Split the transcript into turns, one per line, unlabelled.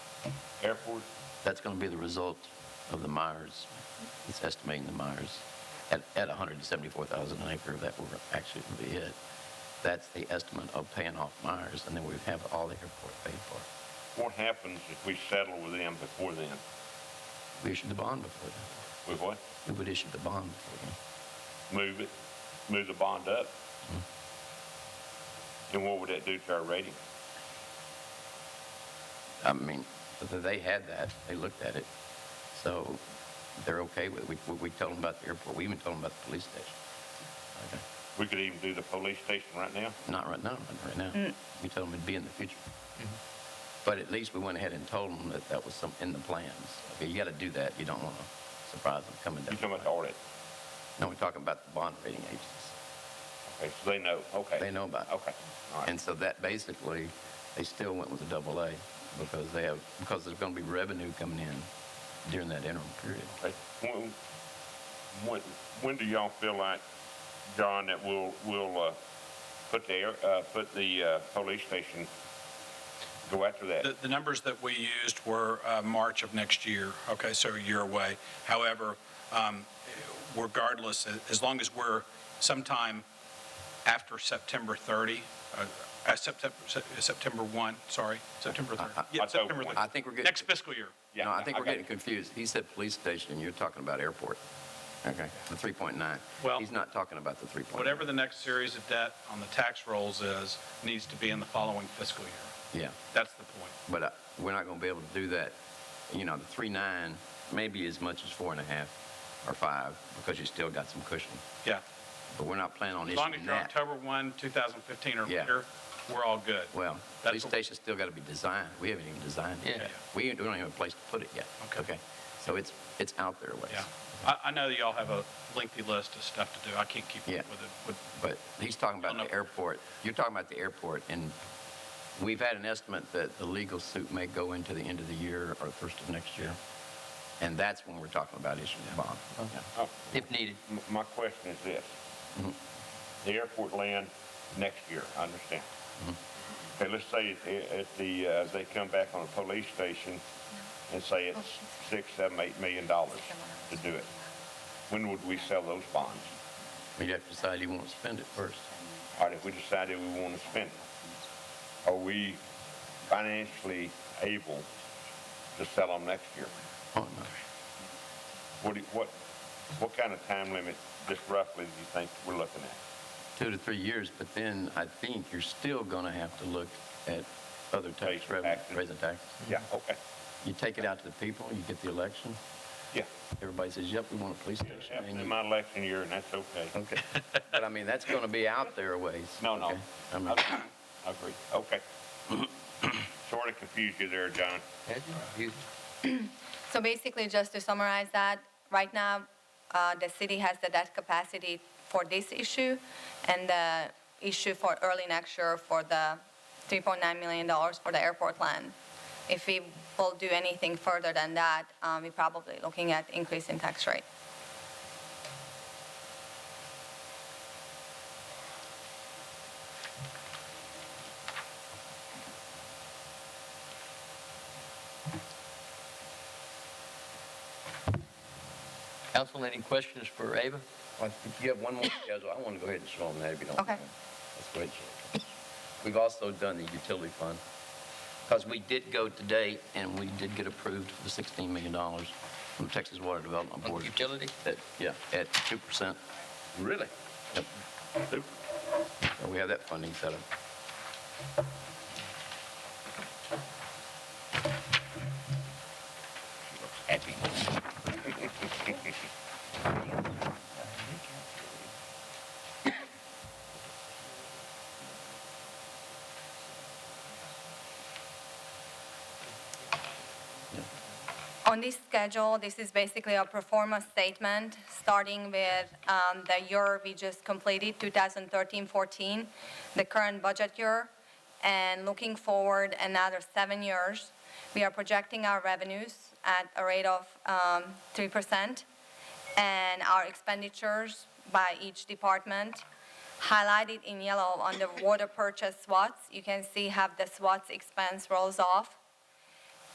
airport?
That's going to be the result of the Myers, it's estimating the Myers at, at 174,000 an acre, that will actually be it. That's the estimate of paying off Myers, and then we have all the airport paid for.
What happens if we settle with them before then?
We issued the bond before then.
With what?
We would issue the bond before then.
Move it, move the bond up?
Mm-hmm.
And what would that do to our rating?
I mean, th- they had that, they looked at it, so they're okay with it. We, we told them about the airport, we even told them about the police station. Okay.
We could even do the police station right now?
Not right now, not right now. We told them it'd be in the future.
Mm-hmm.
But at least we went ahead and told them that that was some, in the plans. Okay, you gotta do that, you don't wanna surprise them coming
You're
down.
talking about the audit?
No, we're talking about the bond rating agencies.
Okay, so they know, okay.
They know about it.
Okay, all
And
right.
so that basically, they still went with a double A because they have, because there's gonna be revenue coming in during that interim period.
Okay. When, when, when do y'all feel like, John, that we'll, we'll, uh, put the, air- uh, put the, uh, police station, go after that?
The, the numbers that we used were uh, March of next year, okay, so a year away. However, um, regardless, as long as we're sometime after September 30, uh, uh, September, September 1, sorry, September 30.
Uh,
Yeah,
October
September
one.
30.
I think we're getting.
Next fiscal year.
Yeah,
No, I think
I
we're
got
getting
you.
confused. He said police station, you're talking about airport. Okay. The 3.9.
Well-
He's not talking about the 3.9.
Whatever the next series of debt on the tax rolls is, needs to be in the following fiscal year.
Yeah,
That's the point.
but uh, we're not going to be able to do that. You know, the 3.9, maybe as much as four and a half or five, because you still got some cushion.
Yeah.
But we're not planning on
As long as
issuing
you're
that.
October 1, 2015 or
Yeah.
later, we're all good.
Well,
That's
police
what-
station's still got to be designed. We haven't even designed it.
Yeah.
yet. We ain't- we don't even have a place to put it yet.
Okay.
So it's, it's out there a ways.
Yeah, I, I know that y'all have a lengthy list of stuff to do. I can't keep up with
Yeah.
it. With,
But he's talking about
No, no.
the airport. You're talking about the airport, and we've had an estimate that the legal suit may go into the end of the year or the first of next year. And that's when we're talking about issuing the bond.
Oh,
If needed.
M- My question is this. The airport land next year, I understand. Okay, let's say at the- at the, uh, they come back on a police station and say it's six, seven, eight million dollars to do it. When would we sell those bonds?
We'd have to decide you want to spend it first.
All right, if we decided we want to spend it, are we financially able to sell them next year?
Oh, no.
What, do you- what, what kind of time limit, just roughly, do you think we're looking at?
Two to three years, but then I think you're still going to have to look at other tax
Raise
revenue,
taxes.
raising taxes.
Yeah, okay,
You take it out to the people, you get the election,
yeah.
everybody says, yep, we want a police station.
Happened
and you-
in my election year, and that's okay.
Okay. But I mean, that's going to be out there a ways.
No, no.
okay? I mean-
I I agree. Okay. Sort of confused you there, John.
So basically, just to summarize that, right now, uh, the city has the debt capacity for this issue and the issue for early next year for the $3.9 million for the airport land. If we will do anything further than that, um, we're probably looking at increase in tax rate.
Council, any questions for Ava?
Well, If you have one more schedule, I want to go ahead and show them that if you don't.
Okay.
mind. Let's go ahead and show them. We've also done the utility fund, because we did go to date, and we did get approved for the $16 million from Texas Water Development
On
Board.
utility?
At- Yeah, at 2%.
Really?
Yep. So We have that funding set up.
Happy.
On this schedule, this is basically a performance statement, starting with um, the year we just completed, 2013-14, the current budget year, and looking forward another seven years. We are projecting our revenues at a rate of um, 3% and our expenditures by each department. Highlighted in yellow on the water purchase SWATs, you can see how the SWATs expense rolls off